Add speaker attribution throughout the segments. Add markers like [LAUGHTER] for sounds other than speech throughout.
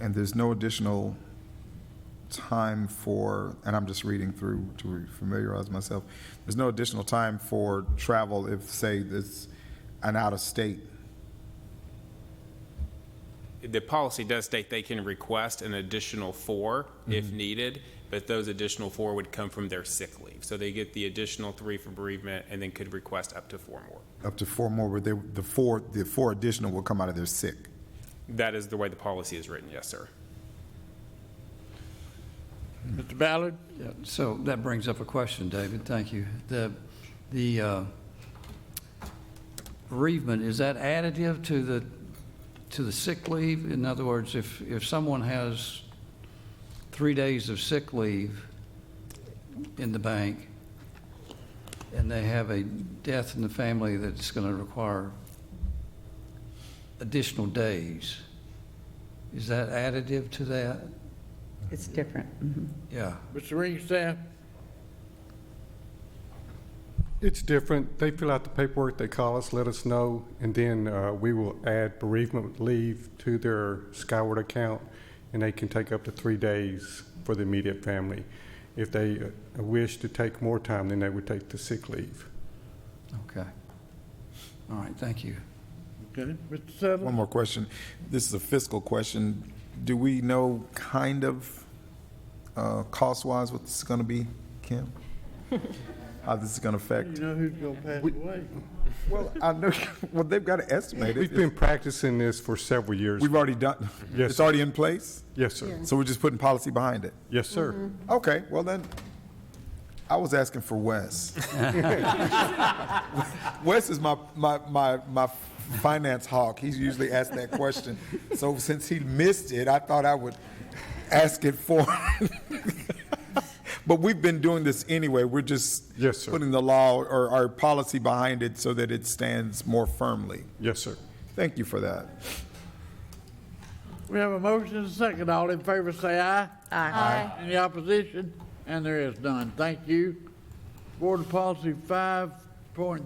Speaker 1: And there's no additional time for, and I'm just reading through to familiarize myself, there's no additional time for travel if, say, it's an out-of-state.
Speaker 2: The policy does state they can request an additional four if needed, but those additional four would come from their sick leave. So they get the additional three for bereavement and then could request up to four more.
Speaker 1: Up to four more, where they, the four, the four additional will come out of their sick.
Speaker 2: That is the way the policy is written, yes, sir.
Speaker 3: Mr. Ballard?
Speaker 4: Yeah, so that brings up a question, David, thank you. The, the uh, bereavement, is that additive to the, to the sick leave? In other words, if, if someone has three days of sick leave in the bank, and they have a death in the family that's going to require additional days, is that additive to that?
Speaker 5: It's different.
Speaker 4: Yeah.
Speaker 3: Mr. Ringstaff?
Speaker 6: It's different. They fill out the paperwork, they call us, let us know, and then uh, we will add bereavement leave to their Skyward account, and they can take up to three days for the immediate family. If they uh, wish to take more time, then they would take the sick leave.
Speaker 4: Okay. All right, thank you.
Speaker 3: Okay. Mr. Sutherland?
Speaker 1: One more question. This is a fiscal question. Do we know kind of, uh, cost-wise what this is gonna be,
Speaker 6: [LAUGHS]
Speaker 1: Kim? How this is gonna affect?
Speaker 3: You know who's going to pass away?
Speaker 1: Well, I know, [LAUGHS] well, they've gotta estimate
Speaker 6: We've
Speaker 1: it.
Speaker 6: been practicing this for several years.
Speaker 1: We've already done,
Speaker 6: [LAUGHS] Yes.
Speaker 1: it's already in place,
Speaker 6: Yes, sir.
Speaker 1: so we're just putting policy behind it.
Speaker 6: Yes,
Speaker 1: Mm-hmm.
Speaker 6: sir.
Speaker 1: Okay, well then, I was asking for Wes. [LAUGHS] Wes is my, my, my, my finance hawk. He's usually asked that question. So since he missed it, I thought I would ask it for him. [LAUGHS] But we've been doing this anyway. We're just
Speaker 6: Yes, sir.
Speaker 1: putting the law or our policy behind it so that it stands more firmly.
Speaker 6: Yes, sir.
Speaker 1: Thank you for that.
Speaker 3: We have a motion and a second. All in favor, say aye. Aye. Any opposition? And there is none. Thank you. Board Policy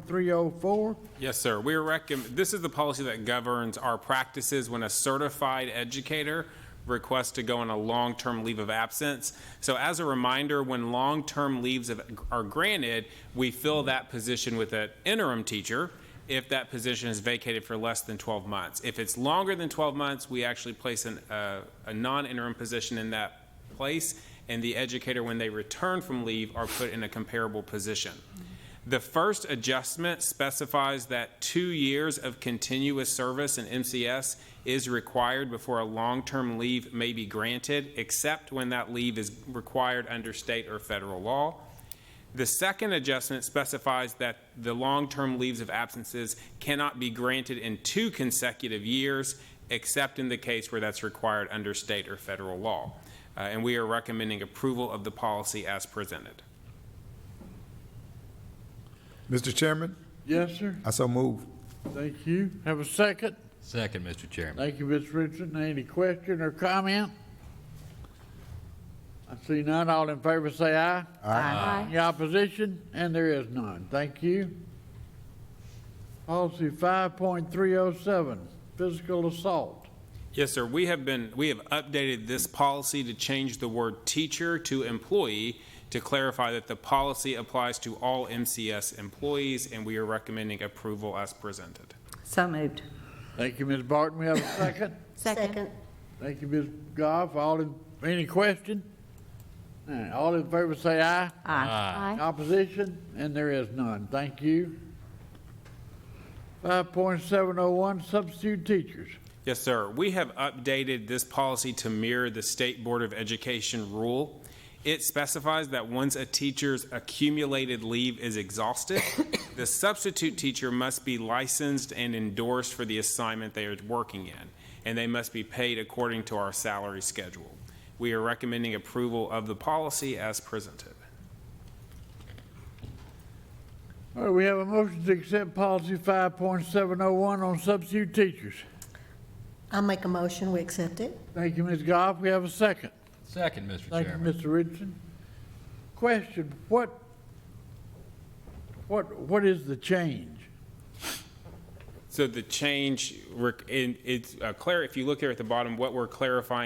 Speaker 3: 5.304.
Speaker 2: Yes, sir. We recommend, this is the policy that governs our practices when a certified educator requests to go on a long-term leave of absence. So as a reminder, when long-term leaves of- are granted, we fill that position with an interim teacher if that position is vacated for less than 12 months. If it's longer than 12 months, we actually place an, uh, a non-interim position in that place, and the educator, when they return from leave, are put in a comparable position. The first adjustment specifies that two years of continuous service in MCS is required before a long-term leave may be granted, except when that leave is required under state or federal law. The second adjustment specifies that the long-term leaves of absences cannot be granted in two consecutive years, except in the case where that's required under state or federal law. Uh, And we are recommending approval of the policy as presented.
Speaker 1: Mr. Chairman,
Speaker 3: Yes, sir.
Speaker 1: I so move.
Speaker 3: Thank you. Have a second.
Speaker 7: Second, Mr. Chairman.
Speaker 3: Thank you, Ms. Richardson. Any question or comment? I see none. All in favor, say aye. Aye. Any opposition? And there is none. Thank you. Policy 5.307, physical assault.
Speaker 2: Yes, sir. We have been, we have updated this policy to change the word teacher to employee to clarify that the policy applies to all MCS employees, and we are recommending approval as presented.
Speaker 5: So moved.
Speaker 3: Thank you, Ms. Barton. We have a second.
Speaker 8: Second.
Speaker 3: Thank you, Ms. Goff. All in, any question? All right, All in favor, say aye.
Speaker 8: Aye.
Speaker 3: Opposition? And there is none. Thank you. 5.701, substitute teachers.
Speaker 2: Yes, sir. We have updated this policy to mirror the State Board of Education rule. It specifies that once a teacher's accumulated leave is exhausted, the substitute teacher must be licensed and endorsed for the assignment they are working in, and they must be paid according to our salary schedule. We are recommending approval of the policy as presented.
Speaker 3: All right, we have a motion to accept policy 5.701 on substitute teachers.
Speaker 8: I make a motion, we accept it.
Speaker 3: Thank you, Ms. Goff. We have a second.
Speaker 7: Second, Mr.
Speaker 3: Thank you,
Speaker 7: Chairman.
Speaker 3: Mr. Richardson. Question, what, what, what is the change?
Speaker 2: So the change, rec- in- it's, uh, Claire, if you look here at the bottom, what we're clarifying